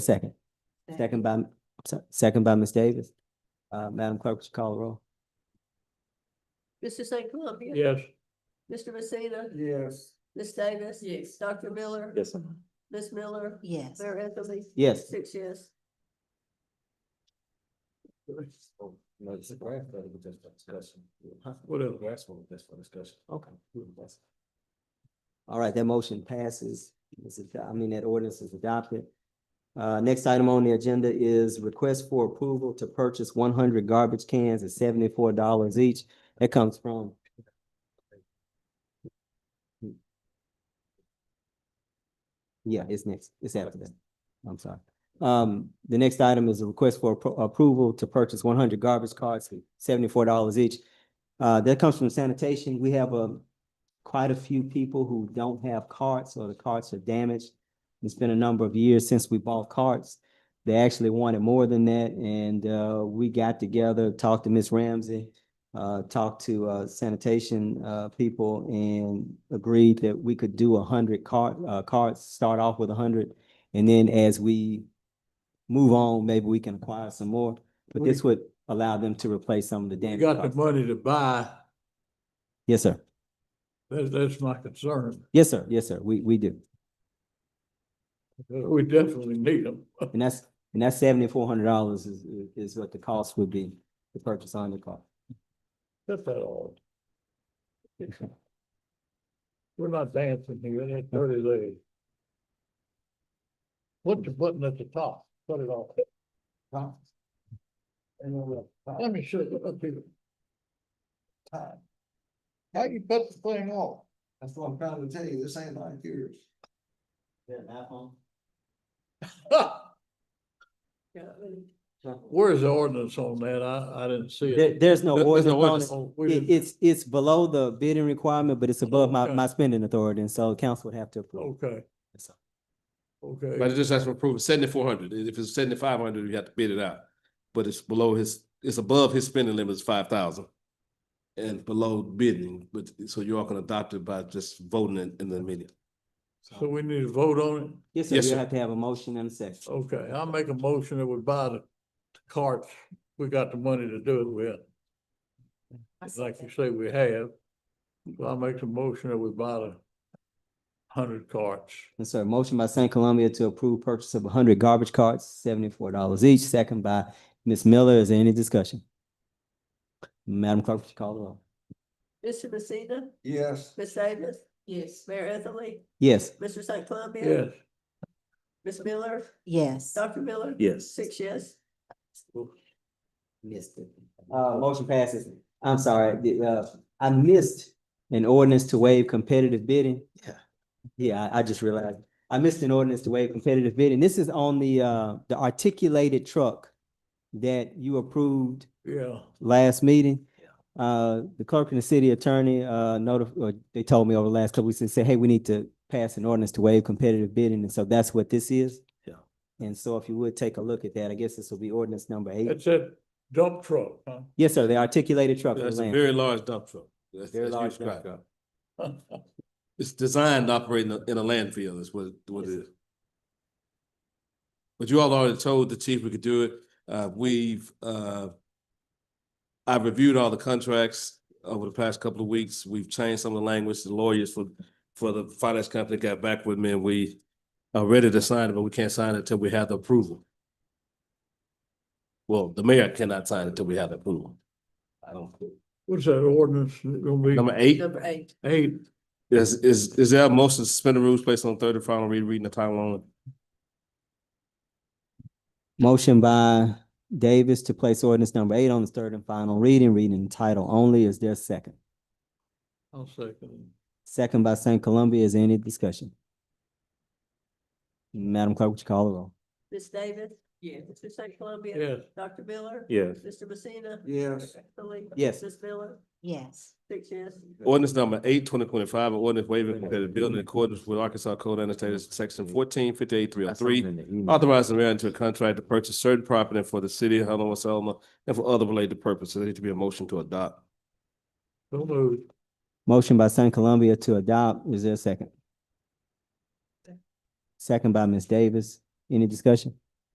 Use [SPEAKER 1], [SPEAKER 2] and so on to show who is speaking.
[SPEAKER 1] Second, second by, I'm sorry, second by Ms. Davis. Uh, Madam Clerk, would you call the roll?
[SPEAKER 2] Mr. St. Columbia?
[SPEAKER 3] Yes.
[SPEAKER 2] Mr. Messina?
[SPEAKER 3] Yes.
[SPEAKER 2] Ms. Davis? Yes. Dr. Miller?
[SPEAKER 3] Yes.
[SPEAKER 2] Ms. Miller?
[SPEAKER 4] Yes.
[SPEAKER 2] Mayor Ethelley?
[SPEAKER 1] Yes,
[SPEAKER 2] Six yes.
[SPEAKER 3] No, it's a graph that we just discussed. Whatever. Grass one, that's for discussion. Okay.
[SPEAKER 1] all right, that motion passes. This is- I mean, that ordinance is adopted. Uh, next item on the agenda is request for approval to purchase one hundred garbage cans at seventy-four dollars each. That comes from. Yeah, it's next, it's after that. I'm sorry. Um, the next item is a request for appro- approval to purchase one hundred garbage carts at seventy-four dollars each. Uh, that comes from sanitation. We have, um, quite a few people who don't have carts or the carts are damaged. It's been a number of years since we bought carts. They actually wanted more than that and, uh, we got together, talked to Ms. Ramsey, uh, talked to, uh, sanitation, uh, people and agreed that we could do a hundred cart, uh, carts, start off with a hundred. And then as we move on, maybe we can acquire some more, but
[SPEAKER 3] We-
[SPEAKER 1] this would allow them to replace some of the
[SPEAKER 3] You
[SPEAKER 1] damaged
[SPEAKER 3] got the
[SPEAKER 1] carts.
[SPEAKER 3] money to buy,
[SPEAKER 1] Yes, sir.
[SPEAKER 3] that's, that's my concern,
[SPEAKER 1] Yes, sir. Yes, sir. We, we do.
[SPEAKER 3] we definitely need them.
[SPEAKER 1] And that's, and that's seventy-four hundred dollars is, is what the cost would be to purchase on the car.
[SPEAKER 3] That's that all. We're not dancing here, that's dirty lady. Put the button at the top, put it off. Top. And then the top. Let me show you up here. Top. How you put the thing off?
[SPEAKER 5] That's what I'm trying to tell you, this ain't like yours.
[SPEAKER 3] Where's the ordinance on that? I, I didn't see
[SPEAKER 1] There,
[SPEAKER 3] it.
[SPEAKER 1] there's no
[SPEAKER 3] There's no
[SPEAKER 1] ordinance on it.
[SPEAKER 3] on- we
[SPEAKER 1] It-
[SPEAKER 3] didn't-
[SPEAKER 1] it's, it's below the bidding requirement, but it's above my,
[SPEAKER 3] Okay. Oh.
[SPEAKER 1] my spending authority, and so council would have to approve.
[SPEAKER 3] Okay.
[SPEAKER 1] Yes, sir.
[SPEAKER 3] Okay,
[SPEAKER 6] But it just has to approve seventy-four hundred, if it's seventy-five hundred, you have to bid it out. But it's below his, it's above his spending limit is five thousand. And below bidding, but, so you're all gonna adopt it by just voting in, in the meeting.
[SPEAKER 3] so we need to vote on it?
[SPEAKER 1] Yes, sir,
[SPEAKER 6] Yes,
[SPEAKER 1] you
[SPEAKER 6] sir.
[SPEAKER 1] have to have a motion and a second.
[SPEAKER 3] Okay, I'll make a motion that we buy the carts. We got the money to do it with. Like you say, we have. So I'll make the motion that we buy the hundred carts.
[SPEAKER 1] And sir, motion by St. Columbia to approve purchase of hundred garbage carts, seventy-four dollars each, second by Ms. Miller. Is there any discussion? Madam Clerk, would you call the roll?
[SPEAKER 2] Mr. Messina?
[SPEAKER 5] Yes,
[SPEAKER 2] Ms. Davis? Yes. Mayor Ethelley?
[SPEAKER 1] Yes,
[SPEAKER 2] Mr. St. Columbia?
[SPEAKER 3] Yes,
[SPEAKER 2] Ms. Miller?
[SPEAKER 4] Yes.
[SPEAKER 2] Dr. Miller?
[SPEAKER 3] Yes.
[SPEAKER 2] Six yes.
[SPEAKER 1] Missed it. Uh, motion passes. I'm sorry, the, uh, I missed an ordinance to waive competitive bidding. Yeah. Yeah, I, I just realized. I missed an ordinance to waive competitive bidding. This is on the, uh, the articulated truck that you approved
[SPEAKER 3] yeah.
[SPEAKER 1] last meeting. Uh, the clerk and the city attorney, uh, notif- or they told me over the last couple weeks, they said, hey, we need to pass an ordinance to waive competitive bidding, and so that's what this is.
[SPEAKER 6] Yeah.
[SPEAKER 1] And so if you would take a look at that, I guess this will be ordinance number eight.
[SPEAKER 3] That's that dump truck, huh?
[SPEAKER 1] Yes, sir, the articulated truck. for
[SPEAKER 6] That's a
[SPEAKER 1] land.
[SPEAKER 6] very large dump truck. That's-
[SPEAKER 1] Very
[SPEAKER 6] that's
[SPEAKER 1] large
[SPEAKER 6] huge
[SPEAKER 1] dump
[SPEAKER 6] crap. It's designed to operate in a, in a landfill is what, what it is. But you all already told the chief we could do it. Uh, we've, uh, I've reviewed all the contracts over the past couple of weeks. We've changed some of the language. The lawyers for, for the finance company got back with me and we are ready to sign it, but we can't sign it until we have the approval. Well, the mayor cannot sign it until we have the approval. I don't,
[SPEAKER 3] What's that ordinance gonna
[SPEAKER 6] number
[SPEAKER 3] be?
[SPEAKER 6] eight?
[SPEAKER 2] Number eight.
[SPEAKER 3] Eight,
[SPEAKER 6] Is, is, is there a motion to suspend the rules placed on third and final read, reading the title only?
[SPEAKER 1] Motion by Davis to place ordinance number eight on its third and final reading, reading in title only. Is there a second?
[SPEAKER 3] I'll second.
[SPEAKER 1] Second by St. Columbia. Is there any discussion? Madam Clerk, would you call the roll?
[SPEAKER 2] Ms. Davis? Yes. Mr. St.
[SPEAKER 3] it.
[SPEAKER 2] Columbia?
[SPEAKER 3] Yes,
[SPEAKER 2] Dr. Miller?
[SPEAKER 6] Yes.
[SPEAKER 2] Mr. Messina?
[SPEAKER 5] yes,
[SPEAKER 2] Mayor Ethelley?
[SPEAKER 1] Yes.
[SPEAKER 2] Ms. Miller?
[SPEAKER 4] Yes.
[SPEAKER 2] Six yes.
[SPEAKER 6] Ordinance number eight, twenty twenty-five, an ordinance waiving competitive bidding in accordance with Arkansas Code Annotated Section fourteen fifty-eight three oh three. Authorizing the mayor into a contract to purchase certain property for the city of Helena, West Helena, and for other related purposes. There needs to be a motion to adopt.
[SPEAKER 3] so moved.
[SPEAKER 1] Motion by St. Columbia to adopt. Is there a second? Second by Ms. Davis. Any discussion?